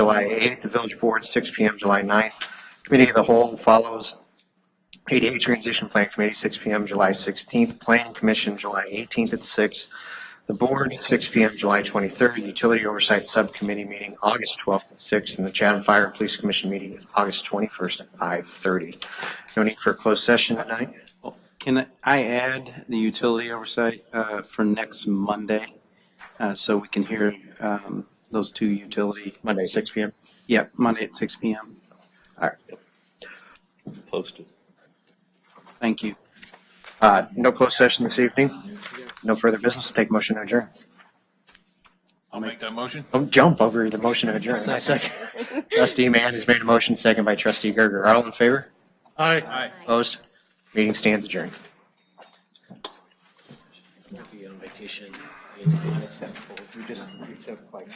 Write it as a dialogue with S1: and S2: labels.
S1: July 8th, the village board, 6 PM, July 9th. Committee of the whole follows ADA Transition Plan Committee, 6 PM, July 16th. Planning Commission, July 18th at 6. The board, 6 PM, July 23rd. Utility Oversight Subcommittee meeting, August 12th at 6. And the Chatham Fire and Police Commission meeting is August 21st at 5:30. No need for a closed session tonight?
S2: Can I add the utility oversight uh, for next Monday? uh, So we can hear um, those two utility,
S1: Monday, 6 PM?
S2: yeah, Monday at 6 PM.
S1: All right.
S3: Posted.
S2: Thank you.
S1: Uh, No closed session this evening? No further business? Take motion to adjourn.
S4: I'll make that motion.
S1: Don't jump over the motion to adjourn. A second. Trustee Mann has made a motion, second by trustee Gerger. All in favor?
S4: Aye. Aye.
S1: Opposed? Meeting stands adjourned.
S3: Be on vacation.
S1: You just, you took like